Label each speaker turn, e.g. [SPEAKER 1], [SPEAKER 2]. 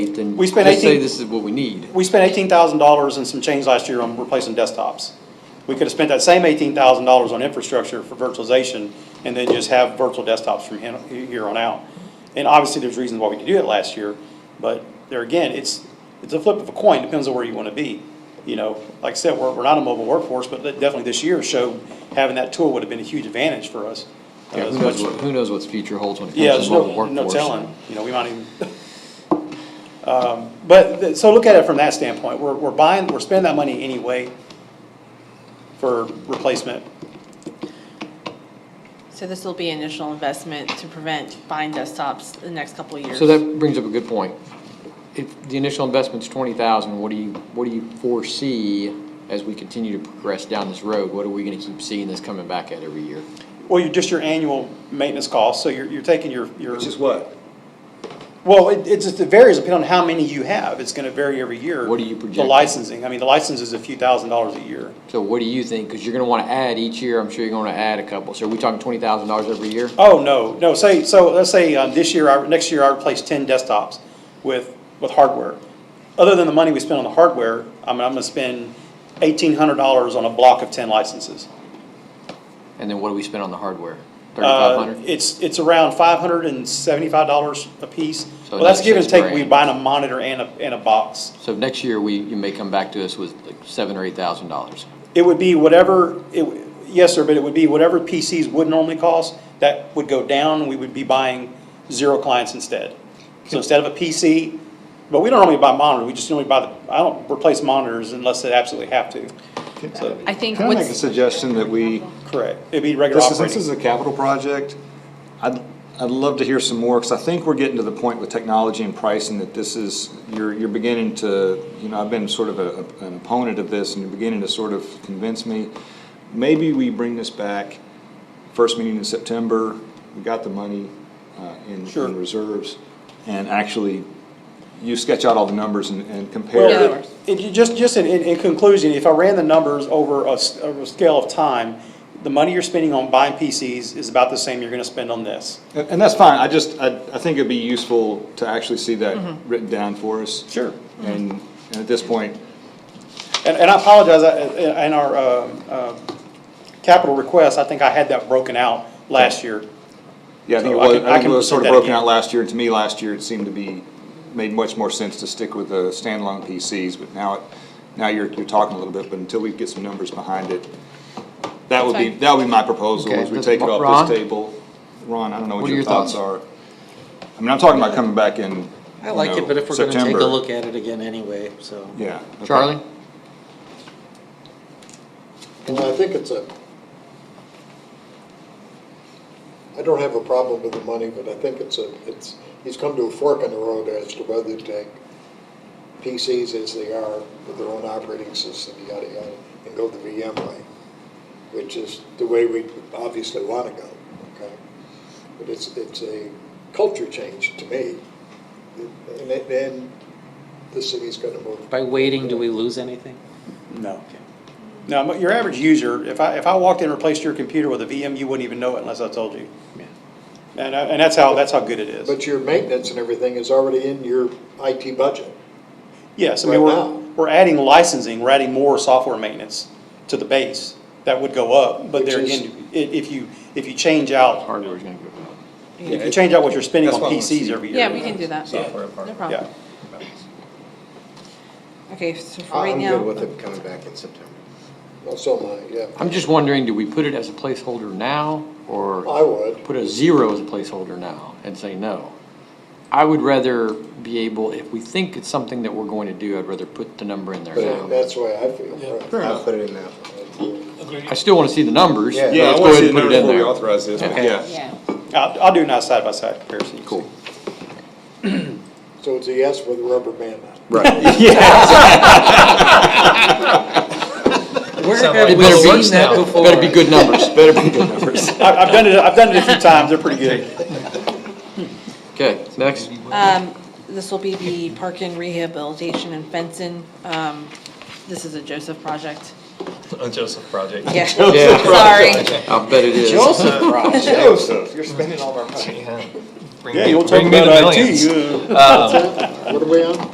[SPEAKER 1] then
[SPEAKER 2] We
[SPEAKER 1] just
[SPEAKER 2] spent
[SPEAKER 1] say
[SPEAKER 2] 18
[SPEAKER 1] this is what we need.
[SPEAKER 2] We spent eighteen thousand dollars and some change last year on replacing desktops. We could have spent that same eighteen thousand dollars on infrastructure for virtualization and then just have virtual desktops from hen- here on out. And obviously, there's reasons why we did do it last year, but there again, it's, it's a flip of a coin, depends on where you want to be. You know, like I said, we're, we're not a mobile workforce, but that definitely this year showed having that tool would have been a huge advantage for us. Uh,
[SPEAKER 1] Yeah,
[SPEAKER 2] as
[SPEAKER 1] who knows
[SPEAKER 2] much-
[SPEAKER 1] what, who knows what's future holds when it
[SPEAKER 2] yeah,
[SPEAKER 1] comes
[SPEAKER 2] there's
[SPEAKER 1] to mobile
[SPEAKER 2] no,
[SPEAKER 1] workforce.
[SPEAKER 2] no telling, you know, we might even. Um, But, th- so look at it from that standpoint, we're, we're buying, we're spending that money anyway for replacement.
[SPEAKER 3] So this will be initial investment to prevent buying desktops the next couple of years.
[SPEAKER 1] So that brings up a good point. If the initial investment's twenty thousand, what do you, what do you foresee as we continue to progress down this road? What are we gonna keep seeing this coming back at every year?
[SPEAKER 2] Well, you're just your annual maintenance costs, so you're, you're taking your, your,
[SPEAKER 4] Which is what?
[SPEAKER 2] well, it, it just it varies depending on how many you have, it's gonna vary every year.
[SPEAKER 1] What do you
[SPEAKER 2] The
[SPEAKER 1] project?
[SPEAKER 2] licensing, I mean, the license is a few thousand dollars a year.
[SPEAKER 1] So what do you think? Cause you're gonna wanna add each year, I'm sure you're gonna add a couple. So are we talking twenty thousand dollars every year?
[SPEAKER 2] Oh, no, no, say, so, let's say, um, this year, I, next year, I replace ten desktops with, with hardware. Other than the money we spend on the hardware, I'm, I'm gonna spend eighteen hundred dollars on a block of ten licenses.
[SPEAKER 1] And then what do we spend on the hardware? Thirty-five
[SPEAKER 2] Uh,
[SPEAKER 1] hundred?
[SPEAKER 2] it's, it's around five hundred and seventy-five dollars a piece.
[SPEAKER 1] So
[SPEAKER 2] Well, that's
[SPEAKER 1] another
[SPEAKER 2] give and
[SPEAKER 1] six
[SPEAKER 2] take, we
[SPEAKER 1] grand.
[SPEAKER 2] buy a monitor and a, and a box.
[SPEAKER 1] So next year, we, you may come back to us with like seven or eight thousand dollars.
[SPEAKER 2] It would be whatever, it, w- yes, sir, but it would be whatever PCs would normally cost, that would go down, and we would be buying zero clients instead. So instead of a PC, but we don't normally buy monitor, we just normally buy the, I don't replace monitors unless they absolutely have to. So,
[SPEAKER 3] I think
[SPEAKER 4] Can I make a
[SPEAKER 3] what's,
[SPEAKER 4] suggestion that we,
[SPEAKER 2] correct, it'd be regular
[SPEAKER 4] this is, this
[SPEAKER 2] operating.
[SPEAKER 4] is a capital project, I'd, I'd love to hear some more, because I think we're getting to the point with technology and pricing that this is, you're, you're beginning to, you know, I've been sort of a, an opponent of this, and you're beginning to sort of convince me. Maybe we bring this back, first meeting in September, we got the money, uh, in,
[SPEAKER 2] Sure.
[SPEAKER 4] in reserves, and actually, you sketch out all the numbers and, and compare.
[SPEAKER 2] Well,
[SPEAKER 3] Yeah.
[SPEAKER 2] it- it, you just, just in, in in conclusion, if I ran the numbers over a, s- over a scale of time, the money you're spending on buying PCs is about the same you're gonna spend on this.
[SPEAKER 4] And, and that's fine, I just, I, I think it'd be useful to actually see that written down for us.
[SPEAKER 2] Mm-hmm. Sure. Mm-hmm.
[SPEAKER 4] And, and at this point,
[SPEAKER 2] And, and I apologize, I- I- in our, uh, uh, capital request, I think I had that broken out last year.
[SPEAKER 4] yeah, I think it
[SPEAKER 2] So I
[SPEAKER 4] was,
[SPEAKER 2] can- I
[SPEAKER 4] I think
[SPEAKER 2] can
[SPEAKER 4] it was sort
[SPEAKER 2] present
[SPEAKER 4] of
[SPEAKER 2] that
[SPEAKER 4] broken
[SPEAKER 2] again.
[SPEAKER 4] out last year, and to me, last year, it seemed to be, made much more sense to stick with the standalone PCs, but now, it now you're, you're talking a little bit, but until we get some numbers behind it, that would be,
[SPEAKER 3] That's fine.
[SPEAKER 4] that would be my proposal,
[SPEAKER 1] Okay,
[SPEAKER 4] is we
[SPEAKER 1] that's-
[SPEAKER 4] take it
[SPEAKER 1] Ron?
[SPEAKER 4] off this table. Ron, I don't know
[SPEAKER 1] What
[SPEAKER 4] what
[SPEAKER 1] are your
[SPEAKER 4] your
[SPEAKER 1] thoughts?
[SPEAKER 4] thoughts are. I mean, I'm talking about coming back in, you
[SPEAKER 5] I like it,
[SPEAKER 4] know,
[SPEAKER 5] but if we're gonna take a
[SPEAKER 4] September.
[SPEAKER 5] look at it again anyway, so.
[SPEAKER 4] Yeah. okay.
[SPEAKER 1] Charlie?
[SPEAKER 6] And I think it's a, I don't have a problem with the money, but I think it's a, it's, he's come to a fork in the road as to whether to take PCs as they are with their own operating system, yada, yada, and go the VM way, which is the way we obviously want to go, okay? But it's, it's a culture change to me. And, it- and the city's going to move.
[SPEAKER 5] By waiting, do we lose anything?
[SPEAKER 2] No. No, but your average user, if I, if I walked in and replaced your computer with a VM, you wouldn't even know it unless I told you. And, I- and that's how, that's how good it is.
[SPEAKER 6] But your maintenance and everything is already in your IT budget.
[SPEAKER 2] Yes, I mean,
[SPEAKER 6] Right
[SPEAKER 2] we're,
[SPEAKER 6] now.
[SPEAKER 2] we're adding licensing, we're adding more software maintenance to the base. That would go up, but there
[SPEAKER 6] Which is-
[SPEAKER 2] again, i- if you, if you change out,
[SPEAKER 1] Hardware's gonna go up.
[SPEAKER 2] if you change out what you're spending
[SPEAKER 4] That's
[SPEAKER 2] on
[SPEAKER 4] what I wanna
[SPEAKER 2] PCs
[SPEAKER 4] see.
[SPEAKER 2] every year.
[SPEAKER 3] yeah, we can do that.
[SPEAKER 4] Software part.
[SPEAKER 3] No
[SPEAKER 2] Yeah.
[SPEAKER 3] problem. Okay, so for right
[SPEAKER 7] I'm good
[SPEAKER 3] now,
[SPEAKER 7] with it coming back in September.
[SPEAKER 6] Well, so am I, yeah.
[SPEAKER 1] I'm just wondering, do we put it as a placeholder now,
[SPEAKER 6] I
[SPEAKER 1] or
[SPEAKER 6] would.
[SPEAKER 1] put a zero as a placeholder now and say no? I would rather be able, if we think it's something that we're going to do, I'd rather put the number in there
[SPEAKER 6] But
[SPEAKER 1] now.
[SPEAKER 6] that's the way I feel. right.
[SPEAKER 7] I'll put it in now.
[SPEAKER 1] I still wanna see the numbers, but
[SPEAKER 4] Yeah, I
[SPEAKER 1] let's go
[SPEAKER 4] wanna
[SPEAKER 1] ahead
[SPEAKER 4] see
[SPEAKER 1] and
[SPEAKER 4] the
[SPEAKER 1] put it
[SPEAKER 4] numbers
[SPEAKER 1] in
[SPEAKER 4] before we
[SPEAKER 1] there.
[SPEAKER 4] authorize this, but
[SPEAKER 1] Okay.
[SPEAKER 4] yeah.
[SPEAKER 3] yeah,
[SPEAKER 2] I'll, I'll do a nice side-by-side comparison. you can
[SPEAKER 1] Cool.
[SPEAKER 6] So it's a yes with a rubber band on.
[SPEAKER 4] Right.
[SPEAKER 5] Where
[SPEAKER 1] It
[SPEAKER 5] have we
[SPEAKER 1] better
[SPEAKER 5] seen
[SPEAKER 1] be,
[SPEAKER 5] that before?
[SPEAKER 1] better be good numbers.
[SPEAKER 4] Better be good numbers.
[SPEAKER 2] see. I- I've done it, I've done it a few times, they're pretty good.
[SPEAKER 1] Okay, next.
[SPEAKER 3] this will be the park and rehabilitation in Benson. Um, this is a Joseph project.
[SPEAKER 8] A Joseph project.
[SPEAKER 3] Yeah,
[SPEAKER 1] Yeah,
[SPEAKER 3] sorry.
[SPEAKER 1] I bet it is.
[SPEAKER 5] Joseph Ross.
[SPEAKER 7] Joseph, you're spending all our money.
[SPEAKER 8] Yeah. Bring
[SPEAKER 2] Yeah,
[SPEAKER 8] me-
[SPEAKER 2] you'll talk
[SPEAKER 8] bring me the
[SPEAKER 2] about IT.
[SPEAKER 8] millions.
[SPEAKER 2] yeah.
[SPEAKER 6] What are we on?